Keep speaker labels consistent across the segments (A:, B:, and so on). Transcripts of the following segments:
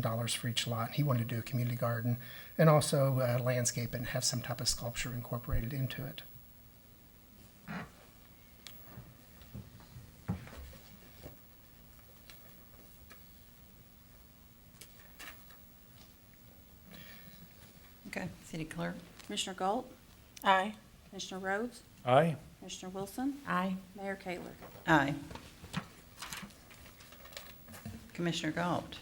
A: dollars for each lot. He wanted to do a community garden and also uh, landscape and have some type of sculpture incorporated into it.
B: Okay, city clerk?
C: Commissioner Galt,
D: Aye.
C: Commissioner Rhodes,
E: Aye.
C: Commissioner Wilson,
D: Aye.
C: Mayor Kayler.
B: Aye. Commissioner Galt?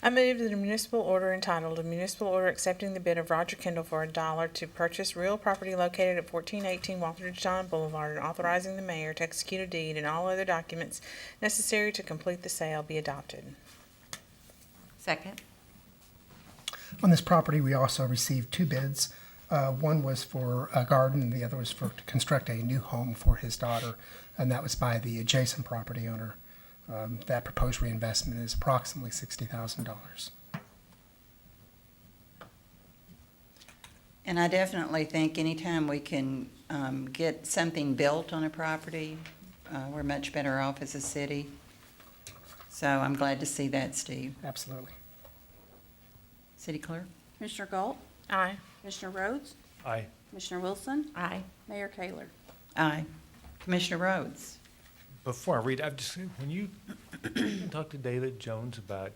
D: I move that a municipal order entitled, a municipal order accepting the bid of Roger Kendall for a dollar to purchase real property located at fourteen eighteen Walter John Boulevard and authorizing the mayor to execute a deed and all other documents necessary to complete the sale be adopted.
B: Second.
A: On this property, we also received two bids. Uh, One was for a garden, and the other was for to construct a new home for his daughter, and that was by the adjacent property owner. Um, That proposed reinvestment is approximately $60,000.
B: And I definitely think anytime we can um, get something built on a property, uh, we're much better off as a city. So I'm glad to see that, Steve.
A: Absolutely.
B: City clerk?
C: Commissioner Galt,
D: Aye.
C: Commissioner Rhodes,
E: Aye.
C: Commissioner Wilson,
D: Aye.
C: Mayor Kayler.
B: Aye. Commissioner Rhodes?
E: Before I read, I've just, when you talked to David Jones about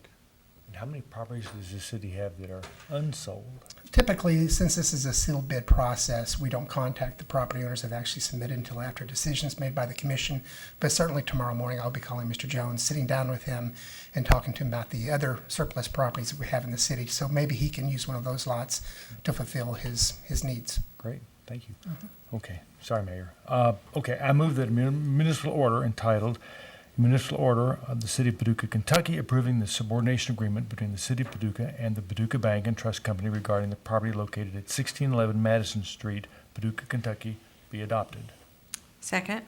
E: how many properties does the city have that are unsold?
A: Typically, since this is a sealed bid process, we don't contact the property owners that actually submitted until after decisions made by the commission. But certainly tomorrow morning, I'll be calling Mr. Jones, sitting down with him and talking to him about the other surplus properties that we have in the city. So maybe he can use one of those lots to fulfill his, his needs.
E: Great, thank you. Okay, sorry, Mayor. Uh, Okay, I move that a mun- municipal order entitled Municipal Order of the City of Paducah, Kentucky approving the subordination agreement between the City of Paducah and the Paducah Bank and Trust Company regarding the property located at 1611 Madison Street, Paducah, Kentucky, be adopted.
B: Second.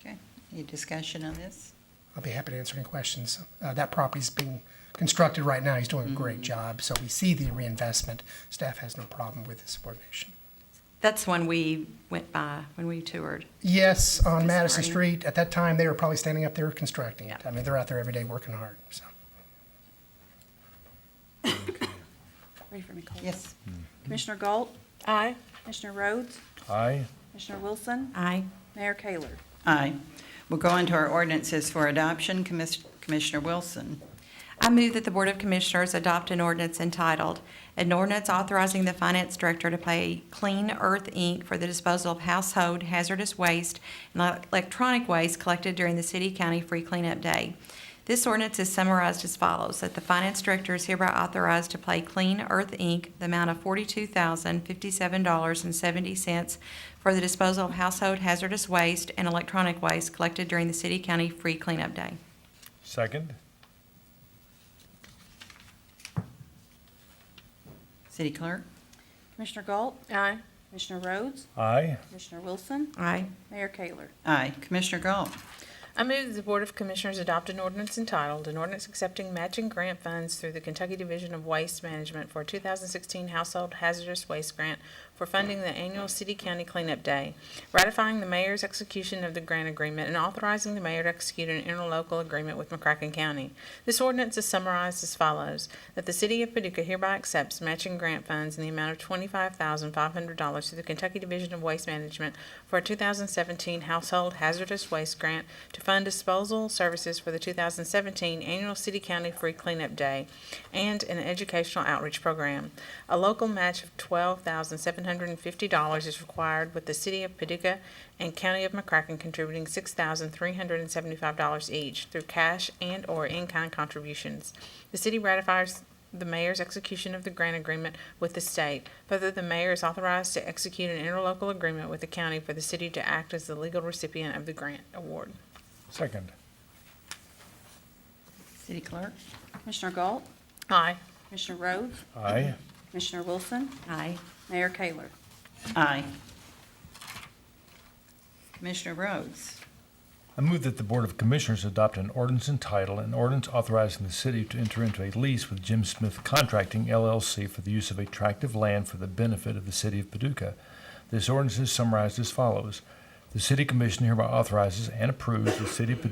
B: Okay, any discussion on this?
A: I'll be happy to answer any questions. Uh, that property's being constructed right now. He's doing a great job. So we see the reinvestment. Staff has no problem with the subordination.
F: That's when we went by, when we toured.
A: Yes, on
F: This
A: Madison
F: morning.
A: Street. At that time, they were probably standing up there constructing it.
F: Yeah.
A: I mean, they're out there every day working hard, so.
C: Ready for me, Cole?
B: Yes.
C: Commissioner Galt,
D: Aye.
C: Commissioner Rhodes,
E: Aye.
C: Commissioner Wilson,
F: Aye.
C: Mayor Kayler.
B: Aye. We'll go on to our ordinances for adoption. Commis- Commissioner Wilson.
F: I move that the Board of Commissioners adopt an ordinance entitled, "An Ordinance Authorizing the Finance Director to Pay Clean Earth, Inc. for the Disposal of Household Hazardous Waste and Elec- Electronic Waste Collected During the City-County Free Cleanup Day." This ordinance is summarized as follows, that the Finance Director is hereby authorized to pay Clean Earth, Inc. the amount of $42,057.70 for the disposal of household hazardous waste and electronic waste collected during the City-County Free Cleanup Day.
E: Second?
B: City clerk?
C: Commissioner Galt,
D: Aye.
C: Commissioner Rhodes,
E: Aye.
C: Commissioner Wilson,
F: Aye.
C: Mayor Kayler.
B: Aye. Commissioner Galt?
D: I move that the Board of Commissioners adopt an ordinance entitled, an ordinance accepting matching grant funds through the Kentucky Division of Waste Management for a 2016 Household Hazardous Waste Grant for funding the annual city-county cleanup day, ratifying the mayor's execution of the grant agreement and authorizing the mayor to execute an interlocal agreement with McCracken County. This ordinance is summarized as follows, that the city of Paducah hereby accepts matching grant funds in the amount of $25,500 to the Kentucky Division of Waste Management for a 2017 Household Hazardous Waste Grant to fund disposal services for the 2017 Annual City County Free Cleanup Day and an educational outreach program. A local match of $12,750 is required with the City of Paducah and County of McCracken contributing $6,375 each through cash and/or in-kind contributions. The city ratifies the mayor's execution of the grant agreement with the state. Further, the mayor is authorized to execute an interlocal agreement with the county for the city to act as the legal recipient of the grant award.
E: Second?
B: City clerk?
C: Commissioner Galt,
D: Aye.
C: Commissioner Rhodes,
E: Aye.
C: Commissioner Wilson,
F: Aye.
C: Mayor Kayler.
B: Aye. Commissioner Rhodes?
E: I move that the Board of Commissioners adopt an ordinance entitled, an ordinance authorizing the city to enter into a lease with Jim Smith Contracting LLC for the use of a tract of land for the benefit of the city of Paducah. This ordinance is summarized as follows. The City Commission hereby authorizes and approves the City of Paducah